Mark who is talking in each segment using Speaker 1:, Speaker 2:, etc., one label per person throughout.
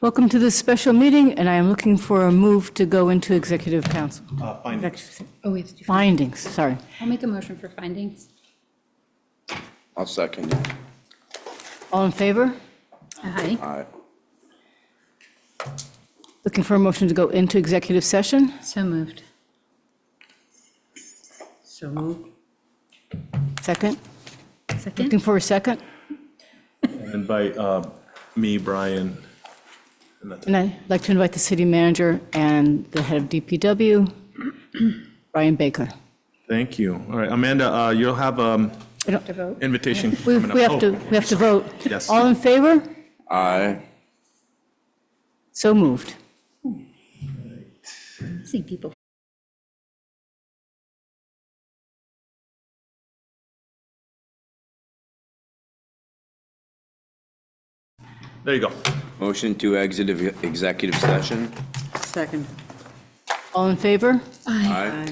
Speaker 1: Welcome to this special meeting, and I am looking for a move to go into executive council.
Speaker 2: Uh, findings.
Speaker 3: Oh, we have to do,
Speaker 1: Findings, sorry.
Speaker 3: I'll make a motion for findings.
Speaker 4: I'll second it.
Speaker 1: All in favor?
Speaker 3: Aye.
Speaker 4: Aye.
Speaker 1: Looking for a motion to go into executive session?
Speaker 3: So moved.
Speaker 5: So moved.
Speaker 1: Second? Looking
Speaker 3: Second?
Speaker 1: for a second?
Speaker 2: And by uh, me, Brian, and that's
Speaker 1: And I'd like to invite the city manager and the head of DPW, Brian Baker.
Speaker 2: Thank you. All right, Amanda, uh, you'll have um
Speaker 1: We don't have to vote?
Speaker 2: invitation
Speaker 1: We
Speaker 2: coming up.
Speaker 1: we have to,
Speaker 2: Oh,
Speaker 1: we have to vote.
Speaker 2: Yes.
Speaker 1: All in favor?
Speaker 4: Aye.
Speaker 1: So moved.
Speaker 3: See people.
Speaker 2: There you go.
Speaker 4: Motion to exit of executive session.
Speaker 5: Second.
Speaker 1: All in favor?
Speaker 4: Aye.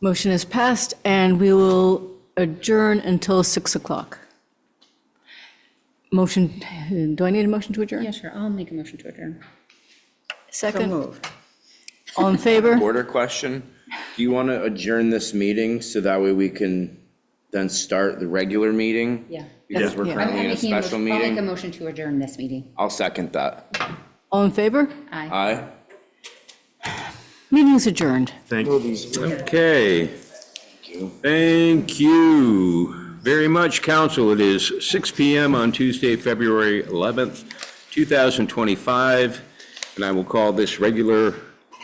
Speaker 1: Motion is passed, and we will adjourn until 6 o'clock. Motion, do I need a motion to adjourn?
Speaker 3: Yeah, sure, I'll make a motion to adjourn.
Speaker 5: So
Speaker 1: Second,
Speaker 5: moved.
Speaker 1: all in favor?
Speaker 4: Order question. Do you want to adjourn this meeting so that way we can then start the regular meeting?
Speaker 3: Yeah.
Speaker 4: Because we're
Speaker 1: Yeah.
Speaker 4: currently in a
Speaker 3: making
Speaker 4: special
Speaker 3: I'll make a
Speaker 4: meeting.
Speaker 3: motion to adjourn this meeting.
Speaker 4: I'll second that.
Speaker 1: All in favor?
Speaker 3: Aye.
Speaker 4: Aye.
Speaker 1: Meeting is adjourned.
Speaker 2: Thank you.
Speaker 6: Okay. Thank you very much, council. It is 6 PM on Tuesday, February 11th, 2025, and I will call this regular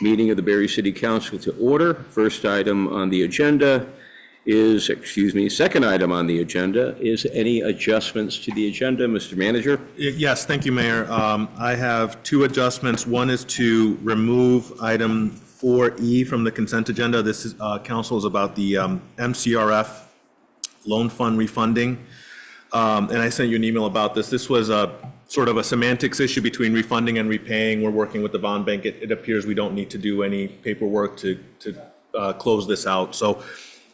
Speaker 6: meeting of the Berry City Council to order. First item on the agenda is, excuse me, second item on the agenda is any adjustments to the agenda, Mr. Manager?
Speaker 2: Yes, thank you, Mayor. Um, I have two adjustments. One is to remove item 4E from the consent agenda. This is, uh, council is about the um, MCRF loan fund refunding. Um, And I sent you an email about this. This was a sort of a semantics issue between refunding and repaying. We're working with the bond bank. It it appears we don't need to do any paperwork to to uh, close this out. So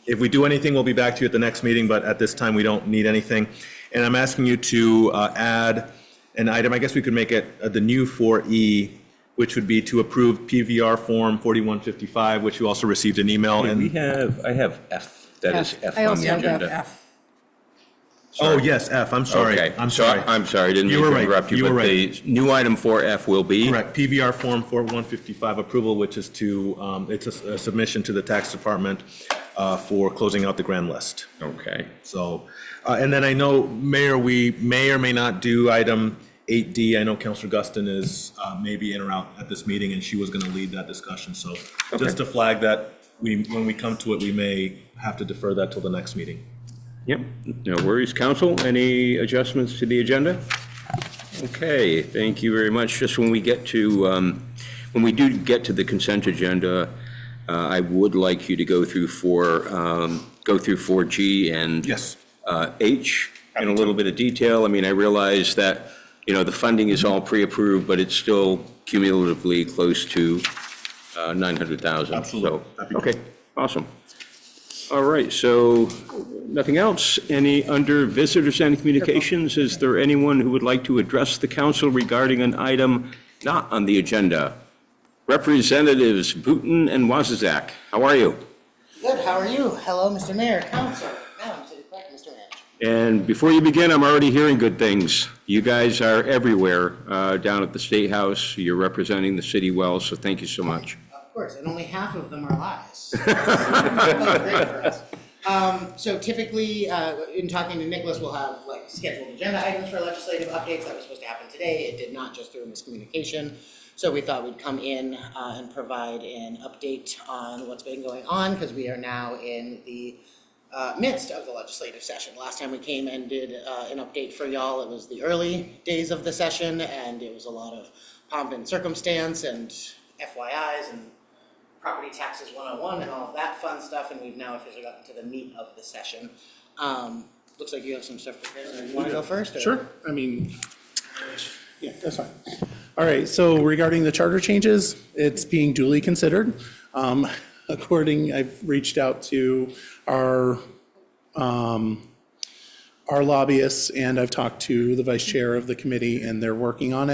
Speaker 2: if we do anything, we'll be back to you at the next meeting, but at this time, we don't need anything. And I'm asking you to uh, add an item, I guess we could make it uh, the new 4E, which would be to approve PVR Form 4155, which you also received an email,
Speaker 6: We
Speaker 2: and,
Speaker 6: have, I have F, that is F
Speaker 1: I
Speaker 6: on
Speaker 1: also
Speaker 6: the
Speaker 1: have F.
Speaker 6: agenda.
Speaker 2: oh, yes, F, I'm sorry.
Speaker 6: Okay,
Speaker 2: I'm
Speaker 6: so
Speaker 2: sorry.
Speaker 6: I'm sorry, I didn't
Speaker 2: You
Speaker 6: mean
Speaker 2: were
Speaker 6: to
Speaker 2: right.
Speaker 6: interrupt you,
Speaker 2: You were
Speaker 6: but
Speaker 2: right.
Speaker 6: the new item 4F will be?
Speaker 2: Correct, PVR Form 4155 approval, which is to, um, it's a s- a submission to the tax department uh, for closing out the grand list.
Speaker 6: Okay.
Speaker 2: So, uh, and then I know, Mayor, we may or may not do item 8D. I know Counselor Guston is uh, maybe in or out at this meeting, and she was going to lead that discussion. So just to flag that, we, when we come to it, we may have to defer that till the next meeting.
Speaker 6: Yep, no worries. Council, any adjustments to the agenda? Okay, thank you very much. Just when we get to, um, when we do get to the consent agenda, uh, I would like you to go through four, um, go through 4G and
Speaker 2: Yes.
Speaker 6: uh, H in a little bit of detail. I mean, I realize that, you know, the funding is all pre-approved, but it's still cumulatively close to uh, 900,000. So,
Speaker 2: Absolutely. That'd be
Speaker 6: Okay, awesome. All right, so nothing else? Any under visitors and communications? Is there anyone who would like to address the council regarding an item not on the agenda? Representatives Booton and Wazzaq, how are you?
Speaker 7: Good, how are you? Hello, Mr. Mayor, Council, Madam City Clerk, Mr. Manager.
Speaker 6: And before you begin, I'm already hearing good things. You guys are everywhere uh, down at the State House. You're representing the city well, so thank you so much.
Speaker 7: Of course, and only half of them are lies. That's great for us. Um, so typically, uh, in talking to Nicholas, we'll have like scheduled agenda items for legislative updates that was supposed to happen today. It did not just through miscommunication. So we thought we'd come in, uh, and provide an update on what's been going on, because we are now in the, uh, midst of the legislative session. Last time we came and did, uh, an update for y'all, it was the early days of the session, and it was a lot of pomp and circumstance and FYIs and property taxes 101 and all of that fun stuff, and we've now officially gotten to the meat of the session. Um, Looks like you have some stuff prepared. You want to go first? or-
Speaker 8: Sure, I mean, yeah, that's fine. All right, so regarding the charter changes, it's being duly considered. Um, According, I've reached out to our, um, our lobbyists, and I've talked to the vice chair of the committee, and they're working on it.